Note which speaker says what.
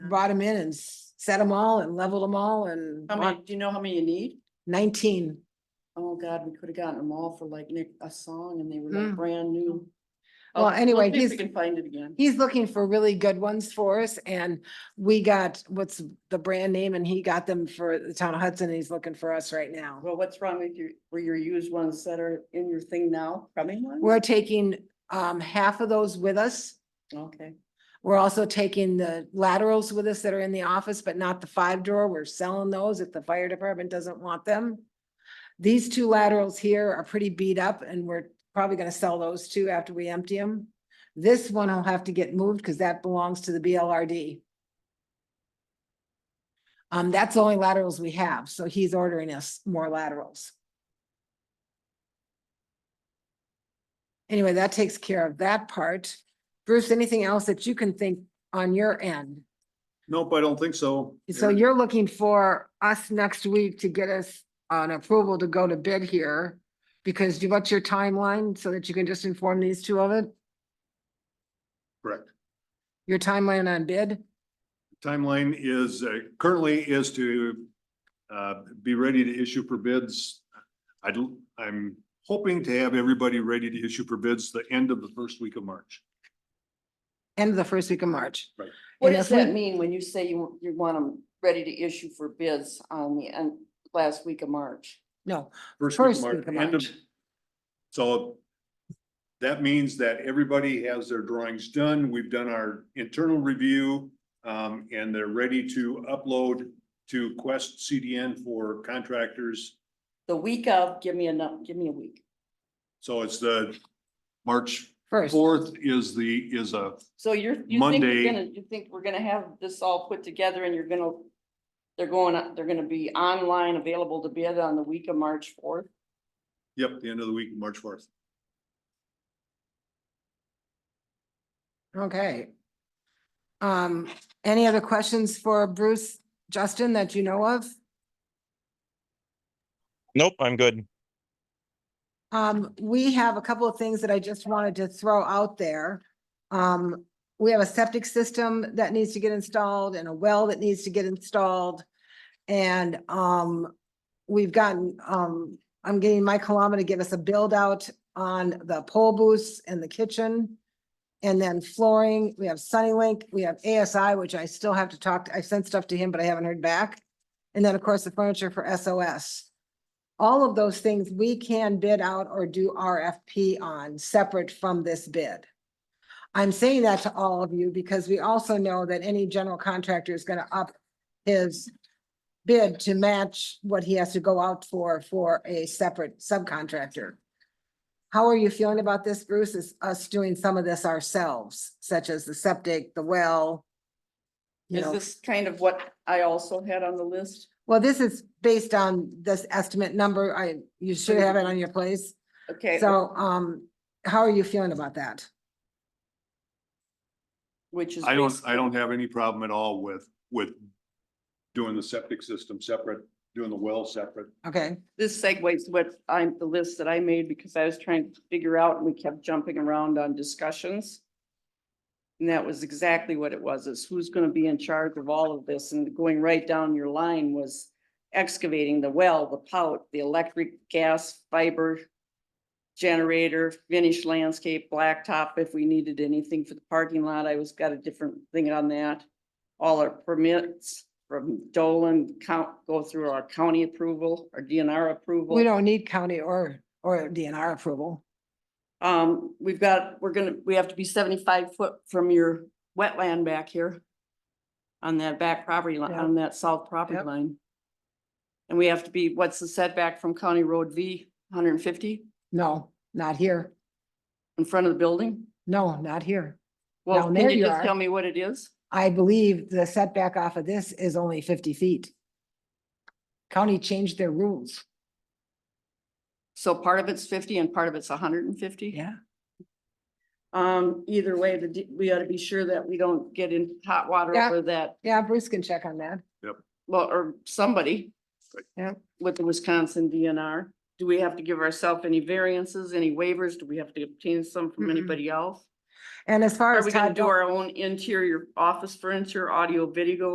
Speaker 1: brought them in and s- set them all and leveled them all and
Speaker 2: How
Speaker 1: bought
Speaker 2: many, do you know how many you need?
Speaker 1: nineteen.
Speaker 2: Oh, God, we could have gotten them all for like Nick, a song and they were
Speaker 1: Mm.
Speaker 2: like brand new.
Speaker 1: Well,
Speaker 2: Oh, let's
Speaker 1: anyway,
Speaker 2: see if
Speaker 1: he's-
Speaker 2: We can find it again.
Speaker 1: He's looking for really good ones for us and we got what's the brand name and he got them for the town of Hudson and he's looking for us right now.
Speaker 2: Well, what's wrong with your, were your used ones that are in your thing now, coming ones?
Speaker 1: We're taking um half of those with us.
Speaker 2: Okay,
Speaker 1: We're also taking the laterals with us that are in the office, but not the five drawer. We're selling those if the fire department doesn't want them. These two laterals here are pretty beat up and we're probably gonna sell those too after we empty them. This one will have to get moved because that belongs to the BLRD. Um, that's the only laterals we have, so he's ordering us more laterals. Anyway, that takes care of that part. Bruce, anything else that you can think on your end?
Speaker 3: Nope, I don't think so.
Speaker 1: So
Speaker 3: Every-
Speaker 1: you're looking for us next week to get us an approval to go to bid here? Because do- what's your timeline so that you can just inform these two of it?
Speaker 3: Correct.
Speaker 1: Your timeline on bid?
Speaker 3: Timeline is, uh, currently is to, uh, be ready to issue for bids. I do, I'm hoping to have everybody ready to issue for bids the end of the first week of March.
Speaker 1: End of the first week of March.
Speaker 3: Right.
Speaker 2: what
Speaker 1: And
Speaker 2: does
Speaker 1: if we-
Speaker 2: that mean when you say you, you want them ready to issue for bids on the end, last week of March?
Speaker 1: No,
Speaker 3: First
Speaker 1: First
Speaker 3: Mar-
Speaker 1: week of
Speaker 3: end
Speaker 1: March.
Speaker 3: So that means that everybody has their drawings done. We've done our internal review. um, and they're ready to upload to Quest CDN for contractors.
Speaker 2: The week of, give me enough, give me a week.
Speaker 3: So it's the March
Speaker 1: first.
Speaker 3: fourth is the, is a
Speaker 2: So you're, you think
Speaker 3: Monday.
Speaker 2: you're gonna, you think we're gonna have this all put together and you're gonna, they're going, on- they're gonna be online available to bid on the week of March fourth?
Speaker 3: Yep, the end of the week, March fourth.
Speaker 1: Okay. Um, any other questions for Bruce, Justin, that you know of?
Speaker 4: Nope, I'm good.
Speaker 1: Um, we have a couple of things that I just wanted to throw out there. Um, we have a septic system that needs to get installed and a well that needs to get installed. And, um, we've gotten, um, I'm getting Mike Kalama to give us a build out on the pole booths and the kitchen. And then flooring, we have Sunnylink, we have ASI, which I still have to talk, to- I sent stuff to him, but I haven't heard back. And then, of course, the furniture for SOS all of those things we can bid out or do RFP on separate from this bid. I'm saying that to all of you because we also know that any general contractor is gonna up his bid to match what he has to go out for, for a separate subcontractor. How are you feeling about this, Bruce? Is us doing some of this ourselves, such as the septic, the well? you
Speaker 2: Is
Speaker 1: know?
Speaker 2: this kind of what I also had on the list?
Speaker 1: Well, this is based on this estimate number. I, you should have it on your place.
Speaker 2: Okay,
Speaker 1: So, um, how are you feeling about that?
Speaker 2: which is.
Speaker 3: I don't,
Speaker 2: basically-
Speaker 3: I don't have any problem at all with, with doing the septic system separate, doing the well separate.
Speaker 1: Okay,
Speaker 2: This segues what I'm, the list that I made because I was trying to figure out and we kept jumping around on discussions. And that was exactly what it was, is who's gonna be in charge of all of this and going right down your line was excavating the well, the pout, the electric, gas, fiber, generator, finished landscape, blacktop, if we needed anything for the parking lot, I was, got a different thing on that. All our permits from Dolan count, go through our county approval, our DNR approval.
Speaker 1: we don't need county or, or DNR approval.
Speaker 2: Um, we've got, we're gonna, we have to be seventy-five foot from your wetland back here. On that back property line,
Speaker 1: Yeah.
Speaker 2: on that south property
Speaker 1: Yep.
Speaker 2: line. And we have to be, what's the setback from County Road V, hundred and fifty
Speaker 1: No, not here.
Speaker 2: in front of the building?
Speaker 1: No, not here.
Speaker 2: Well,
Speaker 1: Down
Speaker 2: can
Speaker 1: there
Speaker 2: you
Speaker 1: you
Speaker 2: just
Speaker 1: are.
Speaker 2: tell me what it is?
Speaker 1: I believe the setback off of this is only fifty feet. County changed their rules.
Speaker 2: So part of it's fifty and part of it's hundred and fifty?
Speaker 1: Yeah.
Speaker 2: Um, either way, the, D- we ought to be sure that we don't get in hot water
Speaker 1: Yeah.
Speaker 2: over that,
Speaker 1: Yeah, Bruce can check on that.
Speaker 2: well, or somebody.
Speaker 1: Yeah.
Speaker 2: With the Wisconsin DNR. Do we have to give ourselves any variances, any waivers? Do we have to obtain some from
Speaker 1: Mm-mm.
Speaker 2: anybody else?
Speaker 1: And as far
Speaker 2: Are
Speaker 1: as.
Speaker 2: we gonna
Speaker 1: Todd
Speaker 2: do our own interior office furniture, audio, video